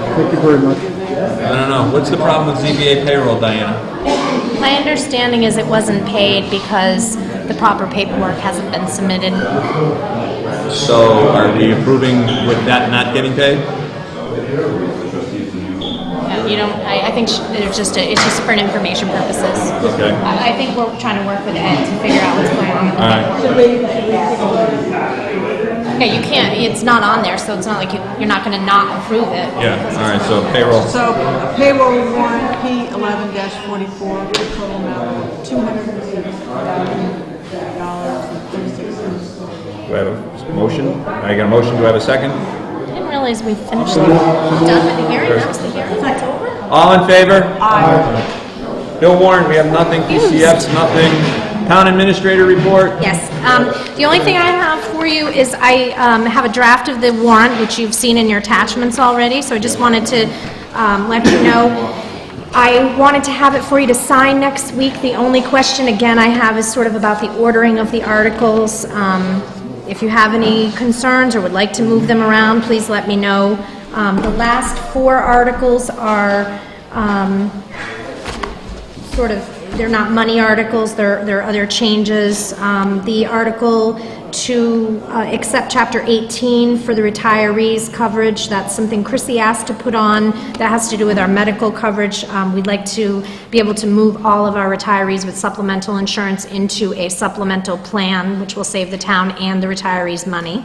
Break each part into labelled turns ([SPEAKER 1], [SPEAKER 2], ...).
[SPEAKER 1] Thank you very much.
[SPEAKER 2] I don't know. What's the problem with ZBA payroll, Diana?
[SPEAKER 3] My understanding is it wasn't paid because the proper paperwork hasn't been submitted.
[SPEAKER 2] So are we approving with that not getting paid?
[SPEAKER 3] Uh, You don't, I, I think sh- there's just, a- it's just for information purposes.
[SPEAKER 2] Okay.
[SPEAKER 3] I, I think we're trying to work with Ed to figure out what's going on with the
[SPEAKER 2] All right.
[SPEAKER 3] paperwork. Yeah, you can't, it's not on there, so it's not like you, you're not gonna not approve it.
[SPEAKER 2] Yeah, all right, so payroll.
[SPEAKER 4] So payroll warrant P eleven forty-four, total amount two hundred and sixty thousand dollars and thirty-six cents.
[SPEAKER 2] Do I have a motion? I got a motion, do I have a second?
[SPEAKER 3] I didn't realize we finished, done with the hearing, that was the hearing, that's over?
[SPEAKER 2] All in favor? Aye. No warrant, we have nothing, PCFs, nothing. Town administrator report?
[SPEAKER 3] Yes, um, the only thing I have for you is I, um, have a draft of the warrant, which you've seen in your attachments already, so I just wanted to, um, let you know. I wanted to have it for you to sign next week. The only question, again, I have is sort of about the ordering of the articles. Um, if you have any concerns or would like to move them around, please let me know. Um, the last four articles are, um, sort of, they're not money articles, they're, they're other changes. Um, The article to uh, accept Chapter 18 for the retirees coverage, that's something Chrissy asked to put on, that has to do with our medical coverage. Um, We'd like to be able to move all of our retirees with supplemental insurance into a supplemental plan, which will save the town and the retirees money.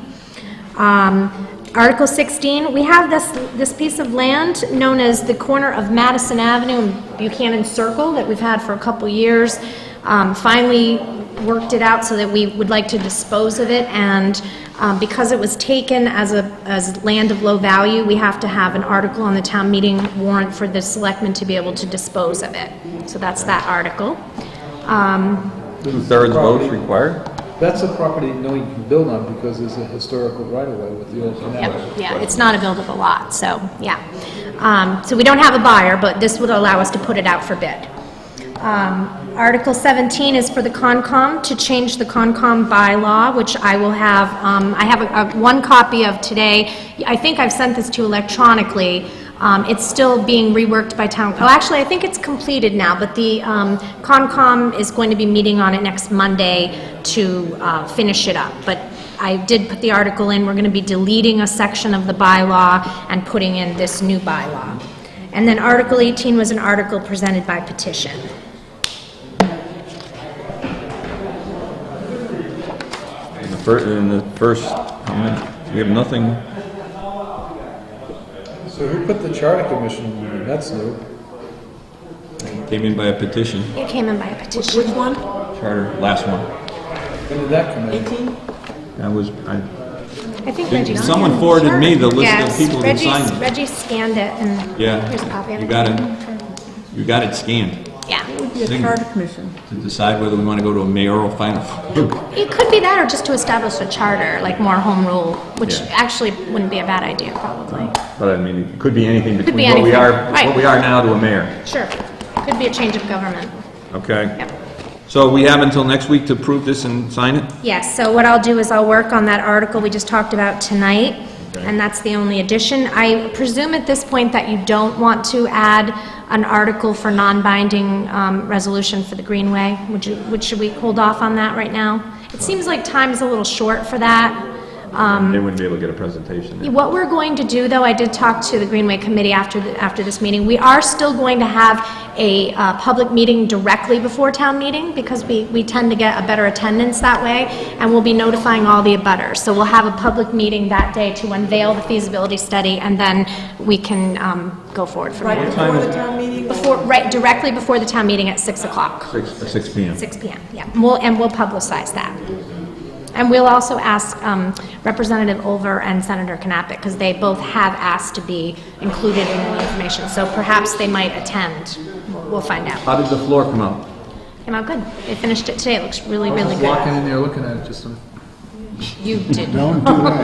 [SPEAKER 3] Um, Article 16, we have this, this piece of land known as the corner of Madison Avenue and Buchanan Circle that we've had for a couple years. Um, Finally worked it out so that we would like to dispose of it, and um, because it was taken as a, as land of low value, we have to have an article on the town meeting warrant for the selectmen to be able to dispose of it. So that's that article. Um,
[SPEAKER 2] Two-thirds votes required?
[SPEAKER 1] That's a property no one can build on because there's a historical right-of-way with the old canal.
[SPEAKER 3] Yep, yeah, it's not a buildable lot, so, yeah. Um, So we don't have a buyer, but this would allow us to put it out for bid. Um, Article 17 is for the Concom, to change the Concom bylaw, which I will have, um, I have a- a- one copy of today. I think I've sent this to you electronically. Um, It's still being reworked by town, oh, actually, I think it's completed now, but the um, Concom is going to be meeting on it next Monday to uh, finish it up. But I did put the article in, we're going to be deleting a section of the bylaw and putting in this new bylaw. And then Article 18 was an article presented by petition.
[SPEAKER 2] In the first, in the first, how many? we have nothing.
[SPEAKER 1] So who put the charter commission on? That's new.
[SPEAKER 2] Came in by a petition,
[SPEAKER 3] It came in by a petition.
[SPEAKER 4] Which one?
[SPEAKER 2] charter, last one.
[SPEAKER 1] When did that come in?
[SPEAKER 4] Eighteen?
[SPEAKER 2] That was, I,
[SPEAKER 3] I think
[SPEAKER 2] Did-
[SPEAKER 3] Reggie.
[SPEAKER 2] someone forwarded me the list of
[SPEAKER 3] Yes,
[SPEAKER 2] people who
[SPEAKER 3] Reggie-
[SPEAKER 2] signed it.
[SPEAKER 3] Reggie scanned it and.
[SPEAKER 2] yeah.
[SPEAKER 3] Here's a copy of it.
[SPEAKER 2] You got it, you got it scanned
[SPEAKER 3] Yeah.
[SPEAKER 4] The
[SPEAKER 2] Singer.
[SPEAKER 4] charter commission.
[SPEAKER 2] to decide whether we want to go to a mayoral final.
[SPEAKER 3] It could be that or just to establish a charter, like more home rule, which
[SPEAKER 2] Yeah.
[SPEAKER 3] actually wouldn't be a bad idea, probably.
[SPEAKER 2] But I mean, it could be anything
[SPEAKER 3] Could be
[SPEAKER 2] between what we
[SPEAKER 3] anything.
[SPEAKER 2] are, what
[SPEAKER 3] Right.
[SPEAKER 2] we are now to a mayor.
[SPEAKER 3] Sure. Could be a change of government.
[SPEAKER 2] Okay?
[SPEAKER 3] Yep.
[SPEAKER 2] So we have until next week to approve this and sign it?
[SPEAKER 3] Yes, so what I'll do is I'll work on that article we just talked about tonight, and that's the only addition. I presume at this point that you don't want to add an article for non-binding um, resolution for the Greenway? Would you, would- should we hold off on that right now? It seems like time's a little short for that. Um,
[SPEAKER 2] They wouldn't be able to get a presentation. then.
[SPEAKER 3] What we're going to do, though, I did talk to the Greenway Committee after, the- after this meeting, we are still going to have a uh, public meeting directly before town meeting, because we, we tend to get a better attendance that way, and we'll be notifying all the abutters. So we'll have a public meeting that day to unveil the feasibility study, and then we can um, go forward from
[SPEAKER 4] Right
[SPEAKER 3] there.
[SPEAKER 4] before the town meeting?
[SPEAKER 3] Before, right, directly before the town meeting at 6 o'clock,
[SPEAKER 2] Six, uh, six P M.
[SPEAKER 3] 6 PM, yeah. And we'll, and we'll publicize that. And we'll also ask um, Representative Olver and Senator Knappich, because they both have asked to be included in the information, so perhaps they might attend. We'll we'll find out.
[SPEAKER 1] Uh,
[SPEAKER 2] How did the floor come out?
[SPEAKER 3] Came out good. They finished it today. It looks really, really
[SPEAKER 1] Just walking
[SPEAKER 3] good.
[SPEAKER 1] in there, looking at it, just, a-
[SPEAKER 3] You did.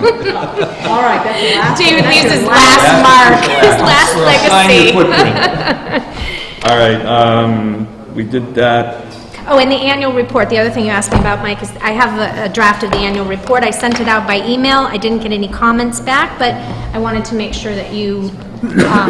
[SPEAKER 4] All right, that's the last.
[SPEAKER 3] David leaves his
[SPEAKER 2] That's
[SPEAKER 3] last mark, his last
[SPEAKER 2] Sign your
[SPEAKER 3] legacy.
[SPEAKER 2] footprint. All right, um, we did that.
[SPEAKER 3] Oh, and the annual report, the other thing you asked me about, Mike, is I have a- a draft of the annual report. I sent it out by email. I didn't get any comments back, but I wanted to make sure that you um,